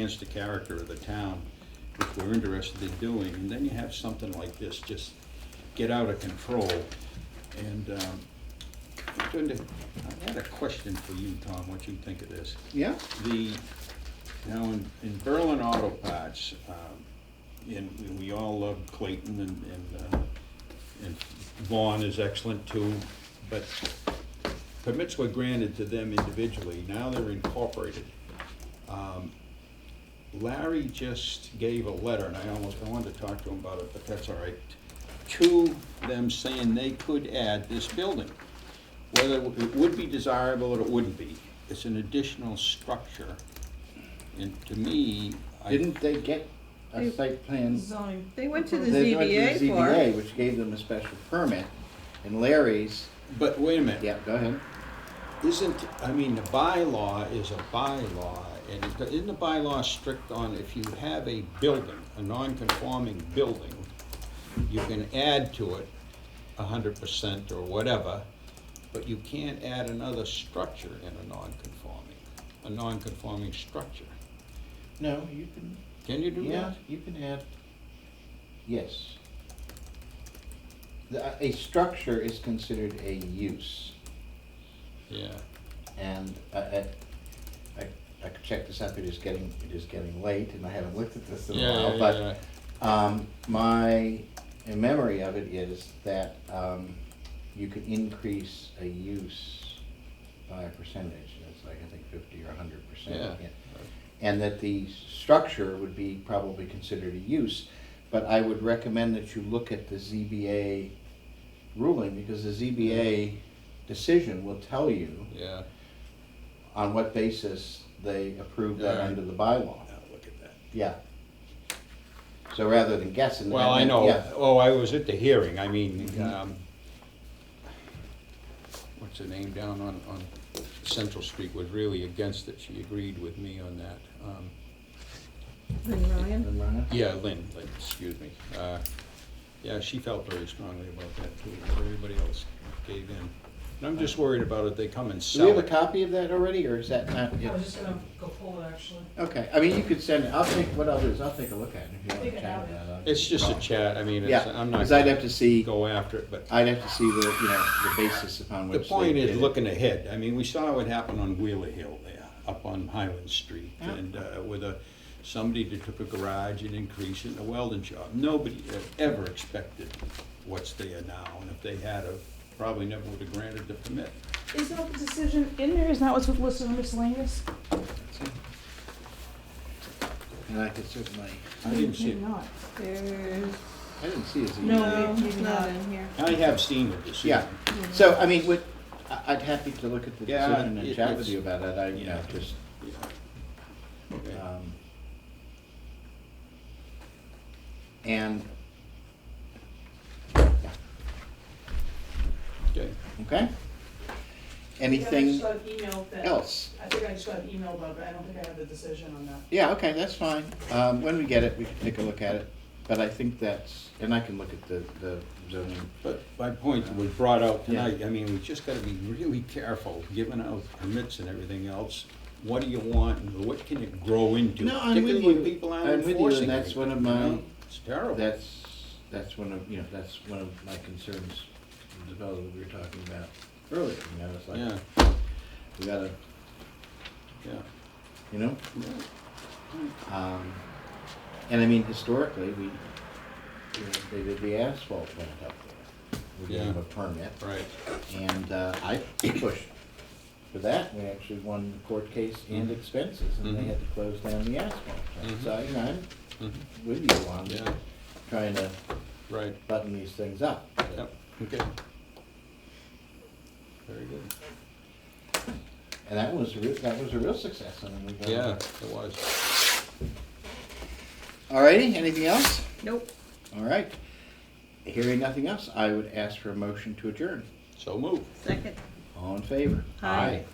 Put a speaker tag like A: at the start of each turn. A: enhance the character of the town, which we're interested in doing, and then you have something like this just get out of control. And, um, I'm going to- I had a question for you, Tom, what you think of this.
B: Yeah,
A: The, now, in, in Berlin Auto Parts, um, and we all love Clayton and, and, uh, and Vaughn is excellent too, but permits were granted to them individually, now they're incorporated. Um, Larry just gave a letter, and I almost, I wanted to talk to him about it, but that's all right, to them saying they could add this building. Whether it would be desirable or it wouldn't be, it's an additional structure. And to me, I,
B: didn't they get a
C: They-
B: site plan?
C: Zoning. They went to the
B: They went to
C: ZBA
B: the
C: for
B: ZBA,
C: it.
B: Which gave them a special permit, and Larry's,
A: but wait a minute.
B: yeah, go ahead.
A: Isn't, I mean, the bylaw is a bylaw, and it- isn't the bylaw strict on if you have a building, a non-conforming building, you can add to it a hundred percent or whatever, but you can't add another structure in a non-conforming, a non-conforming structure.
B: No, you can,
A: Can you do
B: yeah,
A: that?
B: you can add, yes. The- uh, A structure is considered a use,
A: Yeah,
B: and I, I, I- I could check this out, it is getting, it is getting late, and I haven't looked at this in a
A: Yeah,
B: while,
A: yeah,
B: but.
A: yeah.
B: Um, my memory of it is that, um, you could increase a use by a percentage, that's like, I think fifty or hundred percent.
A: Yeah.
B: And that the structure would be probably considered a use, but I would recommend that you look at the ZBA ruling, because the ZBA decision will tell you
A: yeah.
B: on what basis they approved that
A: Yeah.
B: under the bylaw,
A: Now, look at that.
B: yeah. So rather than guessing.
A: Well, I
B: and-
A: know,
B: yeah.
A: oh, I was at the hearing, I mean,
B: Mhm.
A: um, what's her name down on, on Central Street was really against it, she agreed with me on that. Um,
C: Then Ryan,
A: Yeah, Lynn, Lynn, excuse me. Uh, Yeah, she felt very strongly about that too, but everybody else gave in. And I'm just worried about if they come and
B: Do we
A: sell
B: have a
A: it.
B: copy of that already, or is that not?
D: I was just gonna go pull it actually.
B: Okay, I mean, you could send, it. I'll take, what I'll do is I'll take a look at it if you
D: I
B: want
D: think
B: to
D: I
B: chat
D: have it.
B: about it.
A: It's just a chat, I mean, it's,
B: Yeah,
A: I'm not
B: because I'd have
A: gonna
B: to see,
A: go after it, but
B: I'd have to see the, you know, the basis upon
A: The
B: which.
A: point
B: they
A: is
B: did it.
A: looking ahead. I mean, we saw what happened on Wheeler Hill there, up on Highland Street.
B: Yeah.
A: And uh, with a, somebody that took a garage and increased it in a welding shop. Nobody had ever expected what's there now. And if they had, have, probably never would have granted the permit.
E: Is that the decision in there? Isn't that what's listed on miscellaneous?
B: And I could certainly,
A: I didn't see
E: Maybe
A: it.
E: not.
C: there's,
B: I didn't see his email.
C: no,
E: maybe
C: it's
E: not.
C: not in here.
A: I have seen the decision.
B: Yeah, so, I mean, would, I- I'd happy to look at the
A: Yeah,
B: decision
A: it-
B: and chat with
A: it's-
B: you about it, I, you know,
A: yeah.
B: just,
A: Yeah. Okay.
E: Uh,
B: um. And,
A: Okay.
B: okay?
D: I
B: Anything
D: think I just got an email that-
B: else?
D: I think I just got an email about it, but I don't think I have the decision on that.
B: Yeah, okay, that's fine. Um, when we get it, we can take a look at it, but I think that's, and I can look at the, the zoning.
A: But my point was brought out
B: Yeah.
A: tonight, I mean, we just gotta be really careful, giving out permits and everything else. What do you want and what can it grow into?
B: No, I'm with
A: particularly when
B: you.
A: people aren't
B: I'm with you, and
A: enforcing
B: that's
A: it,
B: one of
A: you
B: my-
A: know? It's terrible.
B: That's, that's one of, you know, that's one of my concerns, the development we were talking about earlier, you know, it's
A: Yeah,
B: like, we gotta,
A: yeah.
B: you know?
A: yeah.
B: Um, and I mean, historically, we, you know, they did the asphalt plant up there. We gave them a permit,
A: Right,
B: and, uh, I pushed for that. We actually won the court case and expenses, and they
A: Mhm.
B: had to close down the asphalt plant.
A: Mhm.
B: So, you know, I'm
A: Mhm.
B: with you on
A: yeah,
B: trying to
A: right,
B: button these things up.
A: yep, okay. Very good.
B: And that was, a real- that was a real success. I mean, we got-
A: Yeah, it was.
B: All righty, anything else?
C: Nope.
B: All right. Hearing nothing else, I would ask for a motion to adjourn.
A: So move.
C: Second.
B: All in favor?
C: Aye.